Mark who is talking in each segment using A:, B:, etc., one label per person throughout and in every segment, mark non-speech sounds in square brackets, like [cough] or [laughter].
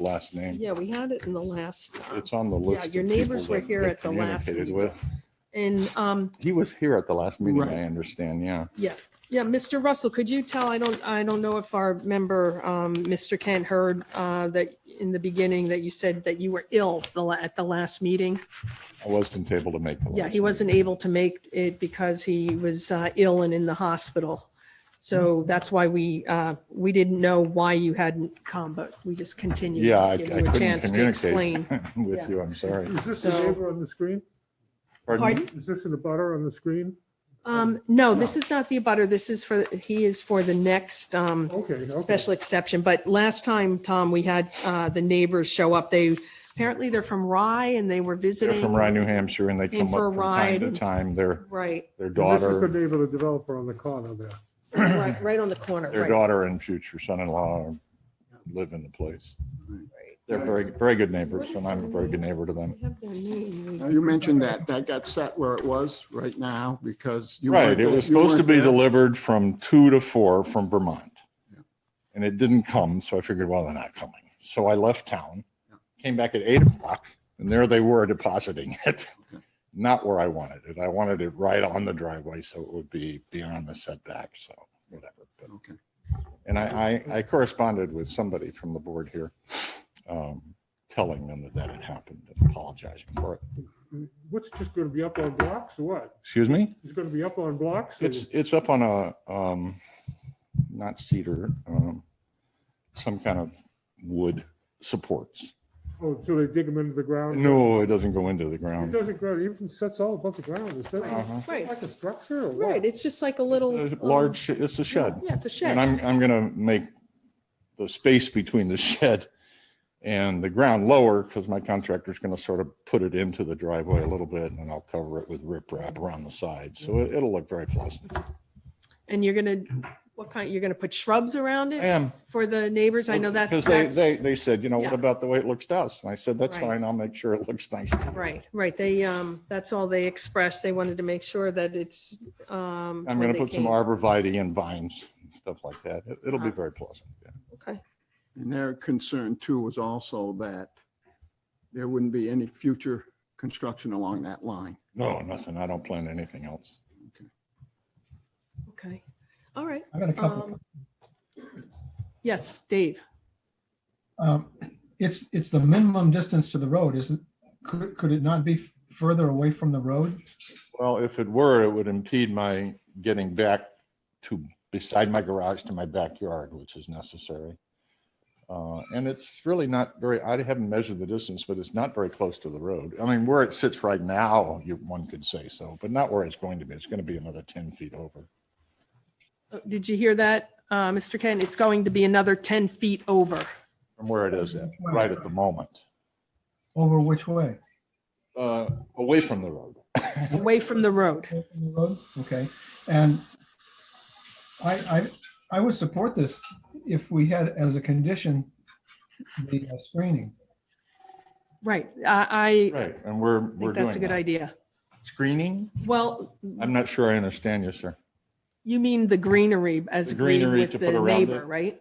A: last name.
B: Yeah, we had it in the last,
A: It's on the list.
B: your
A: of
B: neighbors
A: people
B: were
A: that
B: here
A: they
B: at the last
A: communicated
B: meeting.
A: with.
B: and, um,
A: He was here at the last meeting,
C: Right.
A: I understand, yeah.
B: yeah, yeah, Mr. Russell, could you tell, I don't, I don't know if our member, um, Mr. Kent heard, uh, that in the beginning that you said that you were ill the, la- at the last meeting?
A: I wasn't able to make the.
B: Yeah,
A: last
B: he wasn't able to make it because he was uh, ill and in the hospital. So that's why we, uh, we didn't know why you hadn't come, but we just continued.
A: meeting. Yeah, I I
B: to give you a
A: couldn't
B: chance to
A: communicate
B: explain. Yeah.
A: [laughs] with you, I'm sorry.
D: Is this
B: So-
D: the neighbor on the screen?
B: Pardon?
D: Is this in the butter on the screen?
B: Um, no, this is not the abutter. This is for, he is for the next, um,
D: Okay, okay.
B: special exception. But last time, Tom, we had, uh, the neighbors show up. They, apparently they're from Rye and they were
A: They're
B: visiting.
A: from Rye, New Hampshire, and they
B: Came
A: come
B: for a
A: up from time
B: ride
A: to
B: and-
A: time. Their,
B: Right,
A: their
D: This is the
A: daughter,
D: neighbor, the developer on the corner there.
B: right, right on the corner,
A: their
B: right.
A: daughter and future son-in-law live in the place. They're very, very good neighbors, and I'm a very good neighbor to them.
B: We have their name.
E: Now, You mentioned that, that got set where it was right now because you.
A: Right,
E: weren't
A: it
E: there-
A: was
E: you
A: supposed to
E: weren't
A: be
E: there.
A: delivered from two to four from Vermont.
E: Yeah.
A: And it didn't come, so I figured, well, they're not coming. So I left town,
E: Yeah.
A: came back at eight o'clock, and there they were [laughs] depositing it.
E: Okay.
A: Not where I wanted it. I wanted it right on the driveway, so it would be beyond the setback, so whatever. But
E: Okay.
A: and I, I, I corresponded with somebody from the board here, um, telling them that that had happened and apologizing for it.
D: What's just going to be up on blocks or what?
A: Excuse me?
D: It's going to be up on blocks? or-
A: It's, it's up on a, um, not cedar, um, some kind of wood supports.
D: Oh, so they dig them into the ground?
A: No, it doesn't go into the
D: It
A: ground.
D: doesn't grow, it even sets all above the ground. Is that
A: Uh-huh.
B: Right.
D: like a structure or
B: Right,
D: what?
B: it's just like a little.
A: A
B: um,
A: Large, sh- it's a shed.
B: Yeah, it's a
A: And
B: shed.
A: I'm, I'm gonna make the space between the [laughs] shed and the ground lower because my contractor's gonna sort of put it into the driveway a little bit and then I'll cover it with riprap around the side. So
B: Mm-hmm.
A: it- it'll look very pleasant.
B: And you're gonna, what kind, you're gonna put shrubs around
A: I
B: it
A: am.
B: for the neighbors? I know that.
A: Because they,
B: that's-
A: they, they said, you know, what
B: Yeah.
A: about the way it looks to us? And I said, that's
B: Right.
A: fine. I'll make sure it looks nice. to you."
B: Right, right. They, um, that's all they expressed. They wanted to make sure that it's, um.
A: I'm
B: when
A: gonna
B: they
A: put some
B: came.
A: arborvitae and vines, and stuff like that. It- It'll be
B: Uh-huh.
A: very pleasant. yeah.
B: Okay,
E: And their concern too was also that there wouldn't be any future construction along that line.
A: No, nothing. I don't plan anything else.
B: okay. All right.
F: I got a couple.
B: Um, Yes, Dave.
F: Um, It's, it's the minimum distance to the road, isn't, could, could it not be f- further away from the road?
A: Well, if it were, it would impede my getting back to beside my garage to my backyard, which is necessary. Uh, and it's really not very, I haven't measured the distance, but it's not very close to the road. I mean, where it sits right now, you, one could say so, but not where it's going to be. It's going to be another 10 feet over.
B: Uh, Did you hear that, uh, Mr. Ken? It's going to be another ten feet over.
A: from where it is at, right at the moment,
F: Over which way?
A: uh, away from the road.
B: away from the road.
F: Away from the road? Okay, and I, I, I would support this if we had as a condition the uh, screening.
B: Right. I,
A: Right. And we're, we're
B: I think
A: doing
B: that's a good
A: that.
B: idea.
A: Screening?
B: Well,
A: I'm not sure I understand you, sir.
B: you mean the greenery as
A: The
B: agreed
A: greenery
B: with
A: to
B: the
A: put around
B: neighbor,
A: it?
B: right?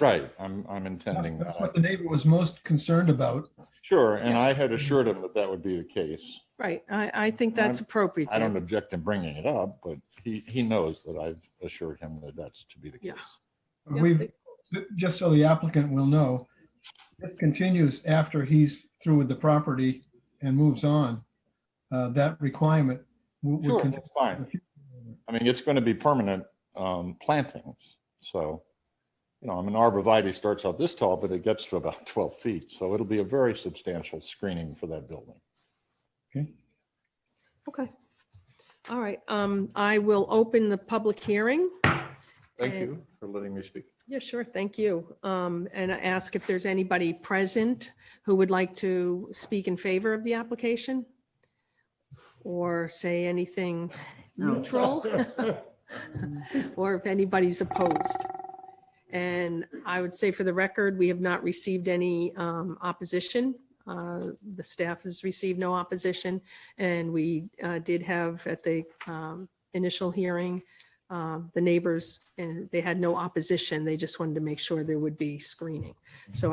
A: Right. I'm, I'm intending
F: That's what
A: that.
F: the neighbor was most concerned about.
A: Sure. And I
B: Yes.
A: had assured him that that would be the case.
B: Right. I, I think that's
A: I'm-
B: appropriate.
A: I don't
B: there.
A: object to bringing it up, but he, he knows that I've assured him that that's to be the case.
B: Yeah. Yeah,
F: We've, just so the applicant will know, this continues after he's through with the property and moves on. Uh, That requirement would. would
A: Sure,
F: con-
A: that's fine. I mean, it's going to be permanent um, plantings. So, you know, I mean, arborvitae starts out this tall, but it gets to about 12 feet. So it'll be a very substantial screening for that building.
B: Okay. All right. Um, I will open the public hearing.
A: Thank
B: And-
A: you for letting me speak.
B: Yeah, sure. Thank you. Um, and I ask if there's anybody present who would like to speak in favor of the application? Or say anything neutral? [laughs] Or if anybody's opposed? And I would say for the record, we have not received any, um, opposition. Uh, the staff has received no opposition. And we, uh, did have at the, um, initial hearing, um, the neighbors, and they had no opposition. They just wanted to make sure there would be screening. So I.